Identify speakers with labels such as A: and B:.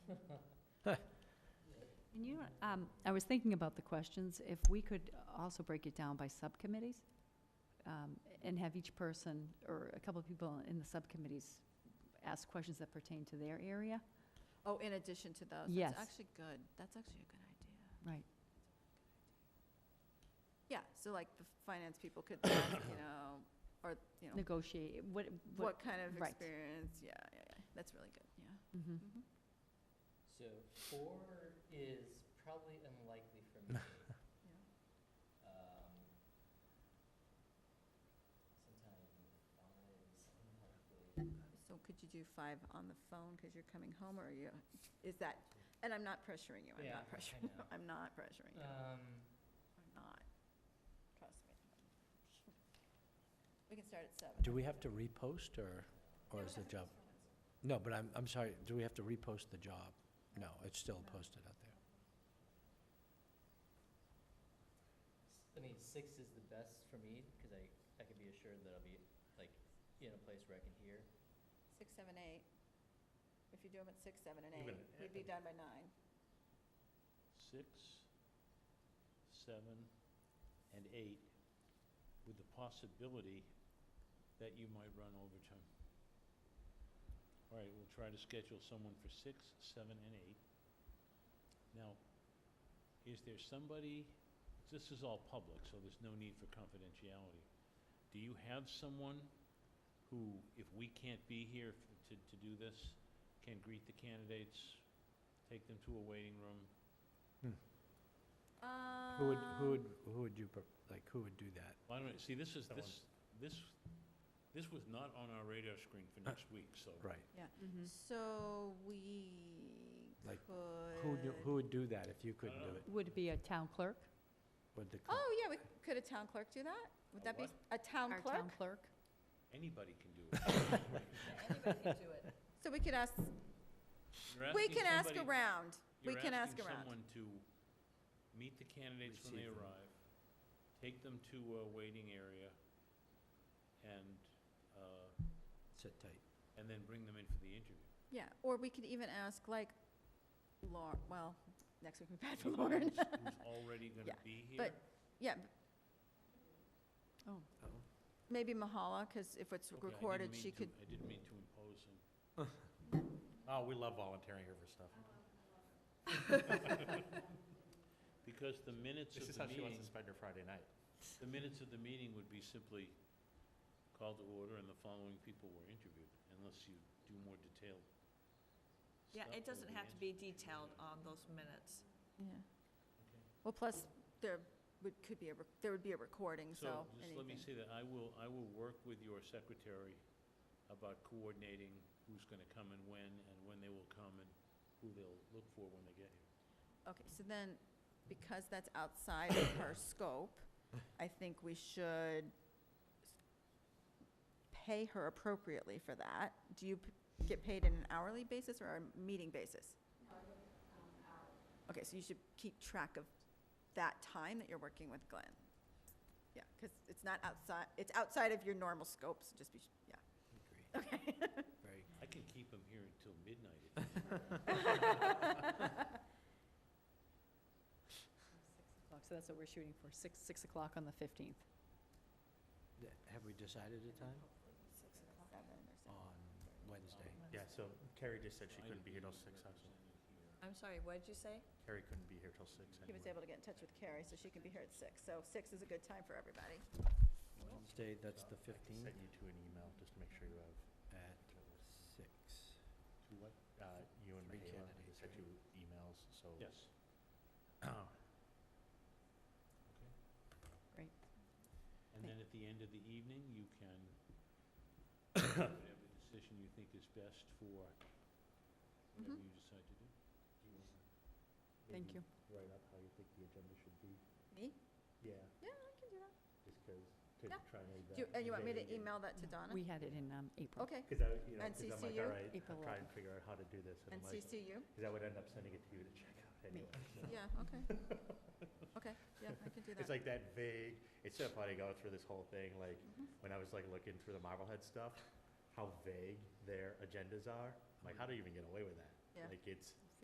A: Um, I was thinking about the questions, if we could also break it down by subcommittees, um, and have each person, or a couple of people in the subcommittees ask questions that pertain to their area.
B: Oh, in addition to those?
A: Yes.
B: That's actually good. That's actually a good idea.
A: Right.
B: Yeah, so like the finance people could, ask, you know, or, you know,
A: Negotiate, what, what,
B: what kind of
A: right.
B: experience, yeah, yeah, yeah. That's really good, yeah.
A: mhm.
B: Mhm.
C: So four is probably unlikely for me. Um, sometime five is unlikely.
B: So could you do five on the phone because you're coming home or are you, is that, and I'm not pressuring you, I'm
C: Yeah,
B: not
C: I
B: pressuring you.
C: know.
B: I'm not pressuring you.
D: Uh,
C: Um,
B: I'm not. Trust me. We can start at seven.
D: Do we have to repost, or, or is the job? No, but I'm, I'm sorry, do we have to repost the job? No, it's still posted out there.
C: s- I mean, six is the best for me because I, I can be assured that I'll be like in a place where I can hear.
B: Six, seven, eight. If you do them at six, seven, and eight,
E: Even
B: we'd be done by nine.
E: Six, seven, and eight, with the possibility that you might run overtime. All right, we'll try to schedule someone for six, seven, and eight. Now, is there somebody, this is all public, so there's no need for confidentiality. Do you have someone who, if we can't be here f- to, to do this, can greet the candidates, take them to a waiting room,
D: Who would, who
B: Um,
D: would, who would you, pro- like, who would do that?
E: Well, I don't, see, this is,
D: Someone-
E: this, this, this was not on our radar screen for next week, so.
D: Uh, Right,
F: Mm-hmm.
A: Mhm.
B: So we
D: Like,
B: could.
D: who, would do- who would do that if you couldn't do
E: dunno.
D: it?
A: Would it be a town clerk?
D: Would the, co-
B: Oh, yeah, we, could a town clerk do that? Would
E: A
B: that be, a
E: what?
B: town
A: Our
B: clerk?
A: town clerk?
E: Anybody can do it.
B: Anybody can do it. So we could ask,
E: You're
B: we
E: asking
B: can ask
E: somebody-
B: around. we can ask
E: You're
B: around.
E: asking someone to meet the candidates when they
D: Receive them.
E: arrive, take them to a waiting area, and, uh,
D: sit tight.
E: and then bring them in for the interview.
B: yeah, or we could even ask like Lauren, well, next week we be bad for
E: Anybody
B: Lauren.
E: who's- Who's already
B: Yeah,
E: gonna be here.
B: but- Yeah, b-
A: Oh,
B: maybe Mahala, because if it's
E: Okay, I didn't
B: recorded,
E: mean
B: she
E: to-
B: could,
E: I didn't mean to impose and
D: Oh, we love volunteering here for stuff.
E: Because the minutes of the meeting,
D: spend her Friday night.
E: the minutes of the meeting would be simply called to order and the following people were interviewed, unless you do more detailed
F: Yeah,
E: stuff
F: it
E: or
F: doesn't
E: the
F: have to be
E: answer-
F: detailed on those minutes.
B: yeah.
E: Okay.
B: Well, plus, there would, could be a, rec- there would be a recording, so.
E: So, just let me
B: anything.
E: say that I will, I will work with your secretary about coordinating who's gonna come and when, and when they will come, and who they'll look for when they get here.
B: Okay, so then, because that's outside of her scope, I think we should pay her appropriately for that. Do you p- get paid on an hourly basis or a meeting basis? Okay, so you should keep track of that time that you're working with Glenn. Yeah, because it's not outside, it's outside of your normal scope, so just be, s- yeah. Okay.
D: Very,
E: I can keep them here until midnight if
A: so that's what we're shooting for, six, six o'clock on the fifteenth.
D: th- have we decided a time on Wednesday?
E: Yeah,
D: so Carrie just said
E: I didn't mean to represent you here.
F: I'm sorry, what did you say?
D: Carrie couldn't be here till six
B: He was able to get in touch with Carrie, so she can be here at six. So six is a good time for everybody.
D: Wednesday, that's the fifteenth
E: you to an email, just to make sure you have.
D: at six.
E: To what?
D: uh, You and Michaela, sent you emails, so.
E: Yes. Okay.
A: Great.
E: And then at the end of the evening, you can, whatever decision you think is best for
F: Mm-hmm.
C: Mm-hmm.
E: whatever
B: Mhm.
E: you decide to do.
A: Thank you.
C: Write up how you think the agenda should be.
B: Me?
C: Yeah,
B: Yeah, I can do that.
C: just because, to
B: Yeah.
C: try and.
B: Do, you- and you want me to email that to
A: No,
B: Donna?
A: We had it in, um, April.
B: Okay,
C: Because I, you know,
B: And
C: 'cause I'm
B: CC
C: like,
B: you?
C: all right,
A: April
C: I'll try and figure out how to do this. And
B: and
C: I'm like,
B: CC you?
C: because I would end up sending it to you to check out anyway. so.
B: Yeah, okay. Okay, yeah, I can do
C: It's
B: that.
C: like that vague, it's so funny going through this whole thing, like,
B: Mhm.
C: when I was like looking through the Marblehead stuff, how vague their agendas are. Like, how do you even get away with that?
B: Yeah.
C: Like, it's,